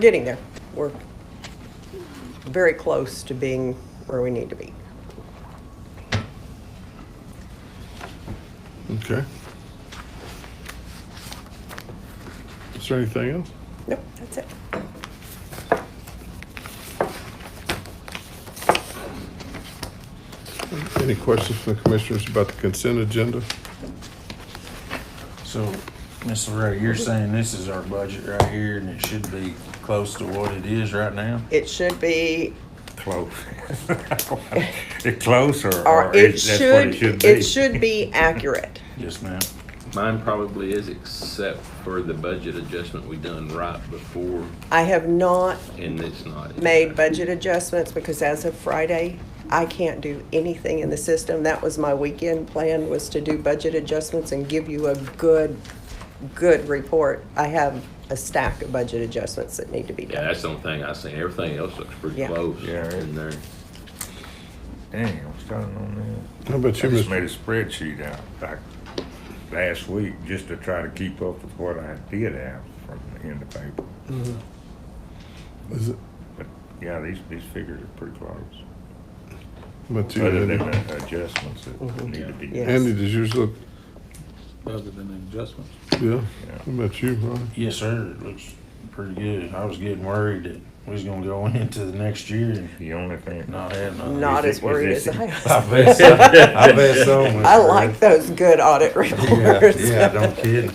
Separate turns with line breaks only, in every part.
getting there. We're very close to being where we need to be.
Okay. Is there anything else?
Nope, that's it.
Any questions from the commissioners about the consent agenda?
So, Ms. Loretta, you're saying this is our budget right here and it should be close to what it is right now?
It should be,
Close. It close or?
or it
it's- that's what
should, it should be accurate.
Yes, ma'am.
Mine probably is, except for the budget adjustment we done right before,
I have not
and it's not. in
made
there.
budget adjustments because as of Friday, I can't do anything in the system. That was my weekend plan, was to do budget adjustments and give you a good, good report. I have a stack of budget adjustments that need to be
Yeah,
done.
that's the only thing I seen. Everything else looks pretty
Yeah.
close
Yeah, it-
in there.
Dang, I'm starting on
How about
that. I
you,
just made a
Mr.?
spreadsheet out back last week just to try to keep up with what I did have from in the paper.
Is it,
But yeah, these, these figures are pretty close.
how about you,
Other than
Andy?
the adjustments that need to be.
Mm-hmm. Yeah.
done.
Andy, does yours look,
other than adjustments.
yeah?
Yeah.
How about you, Ron?
Yes, sir. It looks pretty good. I was getting worried that we was gonna go into the next year and
The only thing,
not have nothing.
Not as
Is it-
worried
is
as
it-
I
I
was.
bet so. I bet so. Miss
I like
Fred.
those good audit
Yeah,
reports.
yeah, don't kid.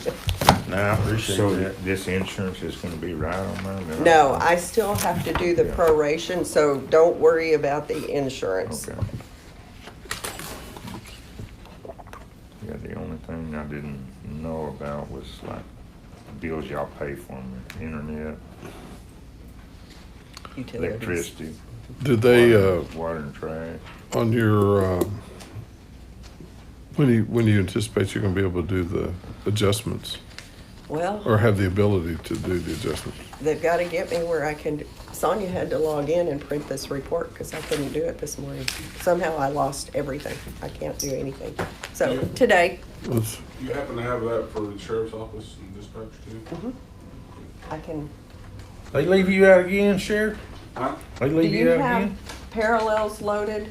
No, I appreciate
so
that.
th- this insurance is gonna be right on mine? or-
No, I still have to do the proration, so don't worry about the insurance.
Okay. Yeah, the only thing I didn't know about was like bills y'all pay for, 'em, internet,
Utilities.
electricity,
Did they, uh,
water and trash.
on your, uh, when do you, when do you anticipate you're gonna be able to do the adjustments?
Well,
Or have the ability to do the adjustments?
they've got to get me where I can, do- Sonia had to log in and print this report because I couldn't do it this morning. Somehow I lost everything. I can't do anything. So today,
Let's,
You happen to have that for the sheriff's office and dispatch too?
I can,
They leave you out again, Sheriff?
Huh?
They
do
leave
you
you out
have
again?
parallels loaded?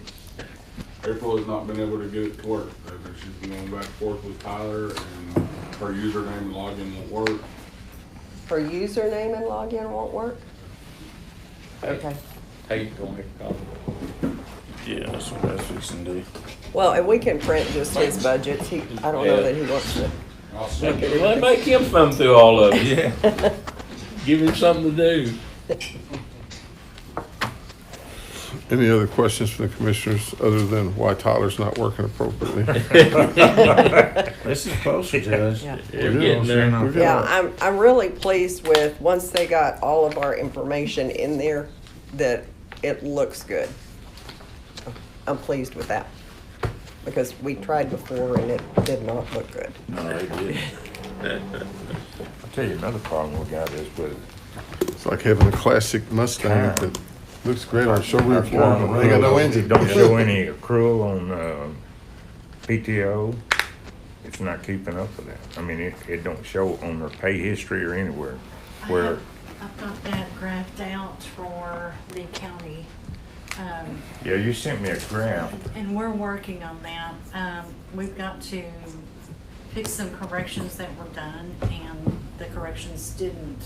April has not been able to get it to work. Uh, She's been going back and forth with Tyler and her username and login won't work.
Her username and login won't work?
Uh,
Okay.
Hey, go make a call.
Yeah, that's what I was fixing to do.
Well, and we can print just his budgets. He, I don't know that he wants to.
I'll
Make
send it.
it- well, make him thumb through all of it. Yeah. Give him something to do.
any other questions from the commissioners other than why Tyler's not working appropriately?
This is closer, Judge.
Yeah.
They're getting there.
Yeah, I'm, I'm really pleased with, once they got all of our information in there, that it looks good. I'm pleased with that. Because we tried before and it did not look good.
No, they did.
I'll tell you another problem we got is with
It's like having a classic Mustang that looks great on a showroom floor, but they got no engine.
Don't show any accrual on, uh, PTO. It's not keeping up with that. I mean, it, it don't show on their pay history or anywhere
I
where
have- I've got that graphed out for Lee County, um,
Yeah, you sent me a graph.
and we're working on that. Um, We've got to fix some corrections that were done, and the corrections didn't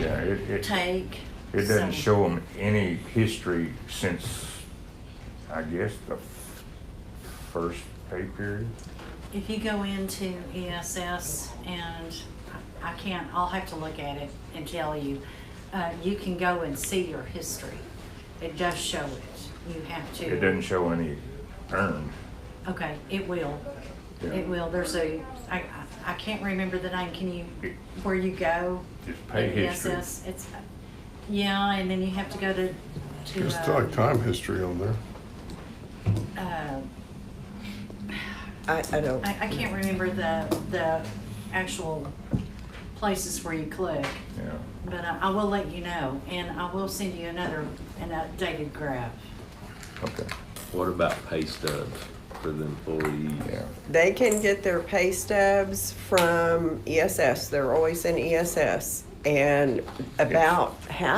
Yeah, it, it,
take.
it doesn't
so-
show them any history since, I guess, the f- first pay period.
If you go into ESS and I I can't, I'll have to look at it and tell you, uh, you can go and see your history. It does show it. You have to.
It doesn't show any earned.
Okay, it will.
Yeah.
It will. There's a, I, I- I can't remember the name. Can you, where you go?
It's pay
in
history.
ESS? It's, yeah, and then you have to go to, to,
It's like
uh,
time history on there.
uh,
I, I don't,
I, I can't remember the, the actual places where you click.
Yeah.
But I, I will let you know and I will send you another, an updated graph.
Okay.
What about pay stubs for the employees?
Yeah.
they E can get their pay stubs from ESS. They're always in ESS. And about half